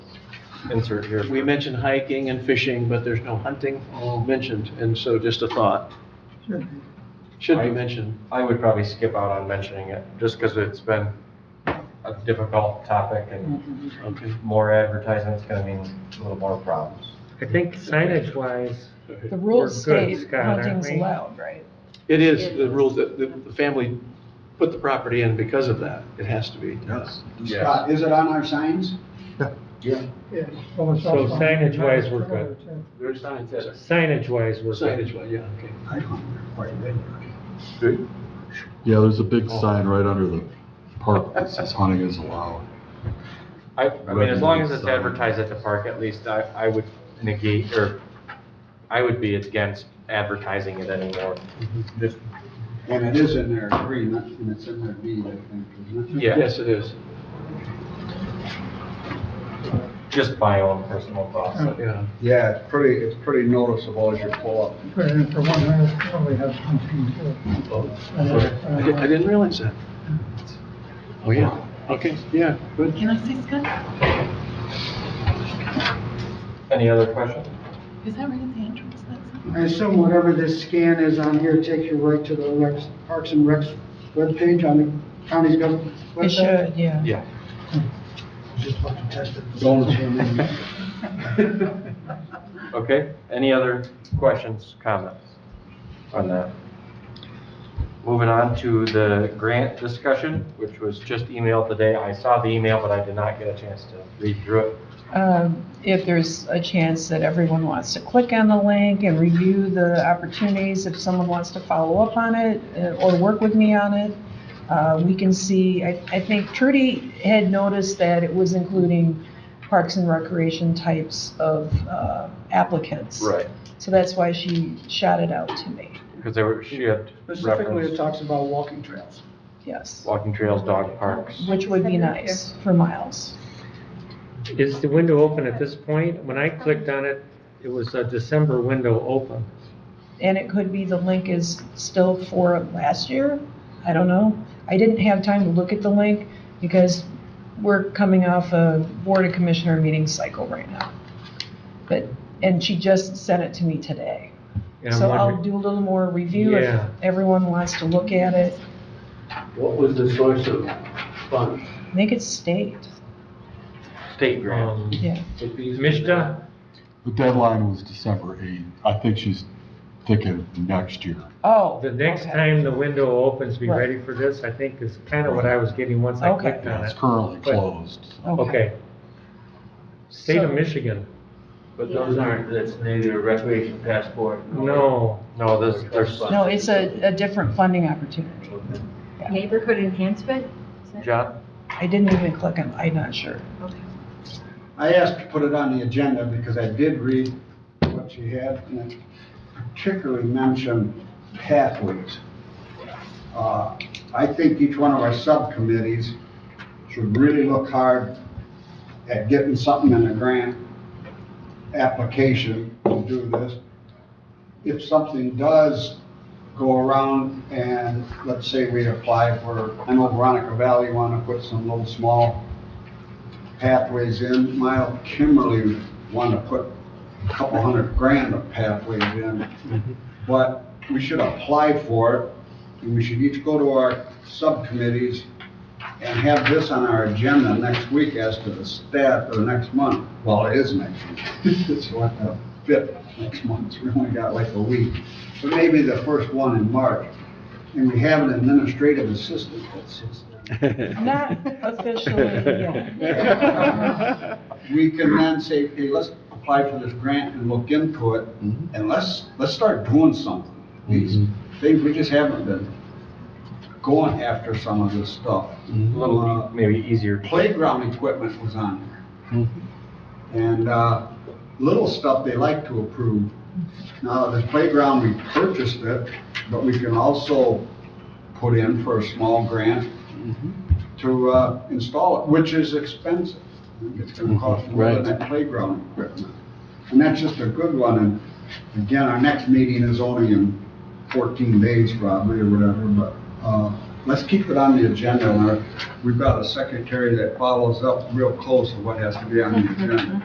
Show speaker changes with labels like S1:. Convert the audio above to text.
S1: insert here.
S2: We mentioned hiking and fishing, but there's no hunting mentioned, and so just a thought. Should be mentioned.
S1: I would probably skip out on mentioning it, just because it's been a difficult topic and
S2: Okay.
S1: more advertisement's gonna mean a little more problems.
S3: I think signage wise,
S4: The
S3: We're
S4: rules
S3: good,
S4: state
S3: Scott, aren't
S4: hunting's
S3: we?
S4: allowed, right?
S2: It is the rule that the the family put the property in because of that. It has to be.
S1: Yeah.
S5: Scott, is it on our signs?
S6: Yeah.
S3: so signage wise, we're good.
S2: There's signs.
S3: Signage wise, we're good.
S2: Signage, well, yeah, okay.
S5: I don't know, quite a bit.
S7: Yeah, there's a
S3: Oh.
S7: big sign right under the park that says hunting is allowed.
S1: I, I mean, as long as it's advertised at the park, at least I, I would negate, or I would be against advertising it anymore. Just,
S5: And it is in their agreement, and it's in their deed, I think, isn't it?
S1: Yeah.
S2: Yes, it is.
S1: just my own personal thoughts.
S2: Yeah.
S8: Yeah, it's pretty, it's pretty noticeable as you pull up.
S6: Put it in for one minute, probably have something to.
S2: I di- I didn't realize that. Oh, yeah. Okay, yeah, good.
S4: Can I say, Scott,
S1: Any other questions?
S4: is that right at the entrance? That's-
S6: I assume whatever this scan is on here takes you right to the Rex, Parks and Recs webpage on the county's government
S4: It
S6: website?
S4: should, yeah.
S1: Yeah.
S6: Just fucking test it.
S5: Donuts in there.
S1: Okay, any other questions, comments on that? Moving on to the grant discussion, which was just emailed today. I saw the email, but I did not get a chance to read through it.
S4: Um, If there's a chance that everyone wants to click on the link and review the opportunities, if someone wants to follow up on it uh, or work with me on it, uh, we can see, I I think Trudy had noticed that it was including Parks and Recreation types of uh, applicants. So that's why she shot it out to me,
S1: Because there were, she had
S6: Specifically, it
S1: referenced
S6: talks about walking trails.
S4: yes,
S1: walking trails, dog parks.
S4: which would be nice for Miles.
S3: Is the window open at this point? When I clicked on it, it was a December window open.
S4: And it could be the link is still for last year. I don't know. I didn't have time to look at the link because we're coming off a Board of Commissioner meeting cycle right now. But, and she just sent it to me today.
S3: And I'm
S4: So I'll
S3: wondering-
S4: do a little more review if
S3: Yeah.
S4: everyone wants to look at it.
S2: What was the source of funds?
S4: I think it's state,
S1: State grant.
S3: Um,
S4: yeah.
S3: Mishta,
S7: The deadline was December 8th. I think she's thinking next year.
S4: Oh.
S3: the next
S4: okay.
S3: time the window opens, be
S4: Right.
S3: ready for this, I think is kind of what I was getting once I
S4: Okay.
S3: clicked
S7: Yeah,
S3: on
S7: It's
S3: it.
S7: currently
S3: But-
S7: closed. so.
S3: Okay. State of
S4: So-
S3: Michigan,
S9: But those aren't, that's neither a recreation passport. nor-
S3: no.
S1: No, there's, there's,
S4: No, it's a, a different funding opportunity.
S10: Neighborhood enhancement? Is that-
S1: John,
S4: I didn't even click on, I'm not sure.
S10: Okay.
S5: I asked to put it on the agenda because I did read what you had, and it particularly mentioned pathways. Uh, I think each one of our subcommittees should really look hard at getting something in a grant application to do this. If something does go around and, let's say we apply for, I know Veronica Valley want to put some little small pathways in. Mile Kimberly want to put a couple hundred grand of pathways in. But we should apply for it, and we should each go to our subcommittees and have this on our agenda next week as to the stat, or next month. Well, it is next week. It's what, the fifth next month, we only got like a week. But maybe the first one in March. And we have an administrative assistant that sits there.
S4: Not officially, yeah.
S5: we can then say, hey, let's apply for this grant and look into it, and let's, let's start doing something. These things, we just haven't been going after some of this stuff.
S1: a little
S5: Uh,
S1: maybe easier.
S5: Playground equipment was on there. And, uh, little stuff they like to approve. Now, the playground, we purchased it, but we can also put in for a small grant to, uh, install it, which is expensive. It's gonna cost more than
S2: Right.
S5: that playground equipment. And that's just a good one, and again, our next meeting is only in fourteen days probably or whatever, but, uh, let's keep it on the agenda, and our- we've got a secretary that follows up real close of what has to be on the agenda.